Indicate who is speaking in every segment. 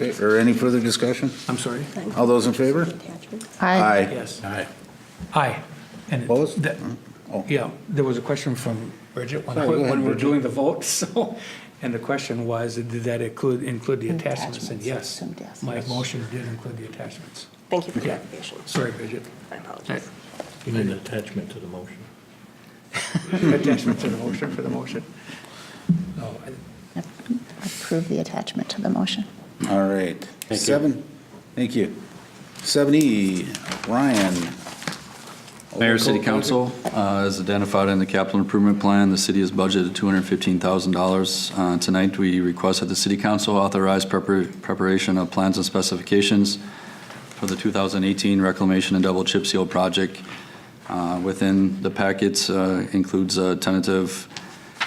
Speaker 1: Okay, Or any further discussion?
Speaker 2: I'm sorry?
Speaker 1: All those in favor?
Speaker 3: Aye.
Speaker 2: Yes. Aye. Aye. And it-
Speaker 1: Opposed?
Speaker 2: that-
Speaker 1: Oh.
Speaker 2: Yeah, there was a question from Bridget when,
Speaker 1: Sorry, go ahead,
Speaker 2: when we were
Speaker 1: Bridget.
Speaker 2: doing the vote, so, and the question was, did that include, include the attachments? And yes,
Speaker 3: Attachments,
Speaker 2: my motion did include the attachments.
Speaker 4: Thank you for
Speaker 2: Okay.
Speaker 4: clarification.
Speaker 2: Sorry, Bridget.
Speaker 4: I apologize.
Speaker 5: You need an attachment to the motion.
Speaker 2: Attachment to the motion for the motion. No, I-
Speaker 3: Approve the attachment to the motion.
Speaker 1: All right. Seven, thank you. 70, Ryan.
Speaker 6: Mayor, City Council, uh, as identified in the capital improvement plan, the city has budgeted $215,000. Uh, Tonight, we request that the City Council authorize prepar- preparation of plans and specifications for the 2018 reclamation and double chip seal project. Uh, Within the packets uh, includes a tentative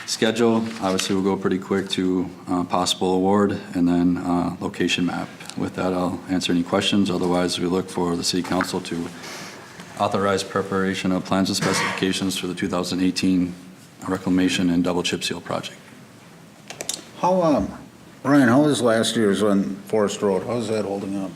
Speaker 6: schedule. Obviously, we'll go pretty quick to uh, possible award and then uh, location map. With that, I'll answer any questions. Otherwise, we look for the City Council to authorize preparation of plans and specifications for the 2018 reclamation and double chip seal project.
Speaker 1: How, um, Ryan, how was last year's on Forest Road? How's that holding up?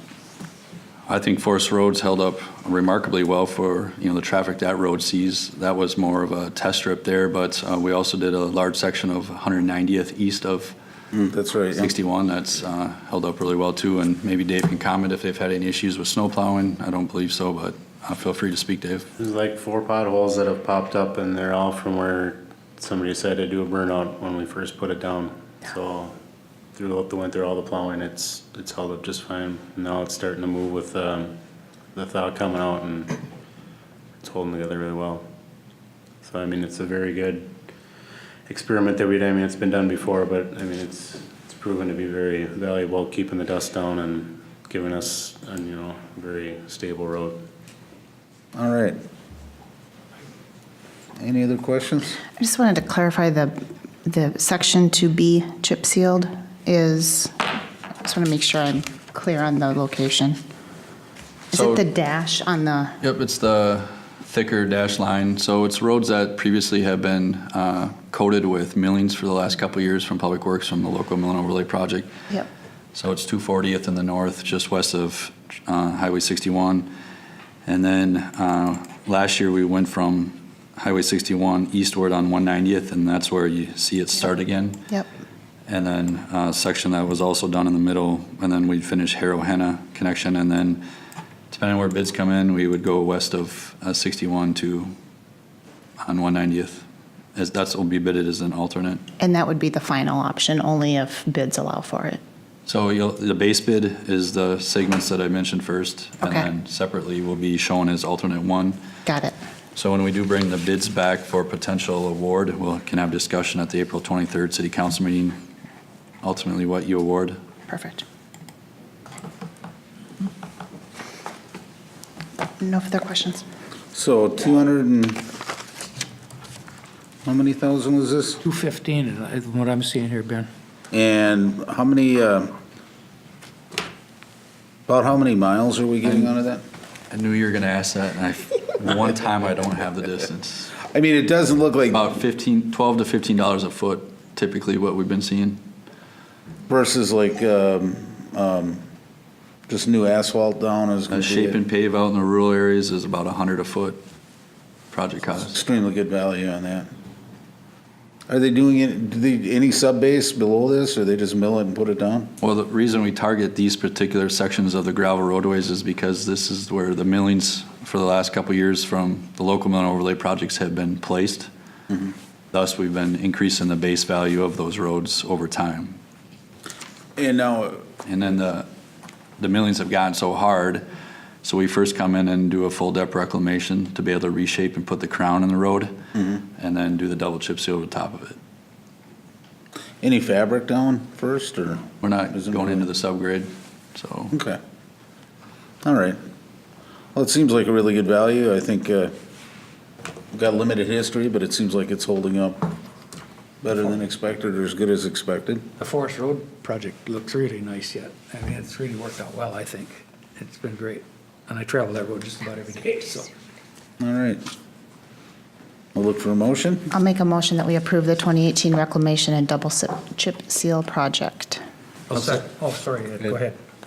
Speaker 6: I think Forest Roads held up remarkably well for, you know, the traffic that road sees. That was more of a test strip there, but uh, we also did a large section of 190th east of
Speaker 1: Hmm, That's right. yeah.
Speaker 6: 61 that's uh, held up really well too, and maybe Dave can comment if they've had any issues with snow plowing. I don't believe so, but uh, feel free to speak, Dave.
Speaker 7: There's like four potholes that have popped up and they're all from where somebody decided to do a burnout when we first put it down. So throughout the winter, all the plowing, it's, it's held up just fine. Now it's starting to move with, um, the thaw coming out and it's holding together really well. So I mean, it's a very good experiment that we did. I mean, it's been done before, but I mean, it's, it's proven to be very valuable, keeping the dust down and giving us, a you know, very stable road.
Speaker 1: All right. Any other questions?
Speaker 3: I just wanted to clarify the, the section to be chip sealed is, I just want to make sure I'm clear on the location. Is
Speaker 6: So-
Speaker 3: it the dash on the,
Speaker 6: Yep, it's the thicker dash line. So it's roads that previously have been uh, coated with millings for the last couple of years from Public Works from the local mill and overlay project.
Speaker 3: yep,
Speaker 6: So it's 240th in the north, just west of uh, Highway 61. And then uh, last year, we went from Highway 61 eastward on 190th, and that's where you see it start again.
Speaker 3: yep,
Speaker 6: And then uh, section that was also done in the middle, and then we'd finish Harrow Henna connection, and then depending on where bids come in, we would go west of uh, 61 to on 190th. As that's will be bidded as an alternate.
Speaker 3: and that would be the final option, only if bids allow for it.
Speaker 6: So you'll, the base bid is the segments that I mentioned first, and
Speaker 3: Okay.
Speaker 6: then separately will be shown as alternate one.
Speaker 3: Got it,
Speaker 6: So when we do bring the bids back for potential award, we'll can have discussion at the April 23rd city council meeting. Ultimately, what you award.
Speaker 3: perfect. No further questions.
Speaker 1: So 200 and, how many thousand was this?
Speaker 2: 215 is is what I'm seeing here, Ben.
Speaker 1: And how many, uh, about how many miles are we getting out of that?
Speaker 6: I knew you were going to ask that, and I, one time I don't have the distance.
Speaker 1: I mean, it doesn't look like
Speaker 6: About 15, 12 to 15 dollars a foot typically what we've been seeing.
Speaker 1: versus like, um, um, just new asphalt down is
Speaker 6: Uh,
Speaker 1: gonna
Speaker 6: Shape
Speaker 1: be
Speaker 6: and pave out in the rural areas is about 100 a foot project cost.
Speaker 1: extremely good value on that. Are they doing it, do they, any subbase below this, or they just mill it and put it down?
Speaker 6: Well, the reason we target these particular sections of the gravel roadways is because this is where the millings for the last couple of years from the local mill and overlay projects have been placed. Thus, we've been increasing the base value of those roads over time.
Speaker 1: And now, uh,
Speaker 6: And then the, the millings have gotten so hard, so we first come in and do a full depth reclamation to be able to reshape and put the crown in the road, and then do the double chip seal over the top of it.
Speaker 1: any fabric down first, or,
Speaker 6: We're not
Speaker 1: Isn't
Speaker 6: going
Speaker 1: it-
Speaker 6: into the subgrade, so.
Speaker 1: okay. All right. Well, it seems like a really good value, I think, uh, we've got limited history, but it seems like it's holding up better than expected, or as good as expected.
Speaker 2: The Forest Road project looks really nice yet. I mean, it's really worked out well, I think. It's been great. And I travel that road just about every day, so.
Speaker 1: All right. We'll look for a motion.
Speaker 3: I'll make a motion that we approve the 2018 reclamation and double si- chip seal project.
Speaker 2: I'll second. Oh, sorry, go ahead.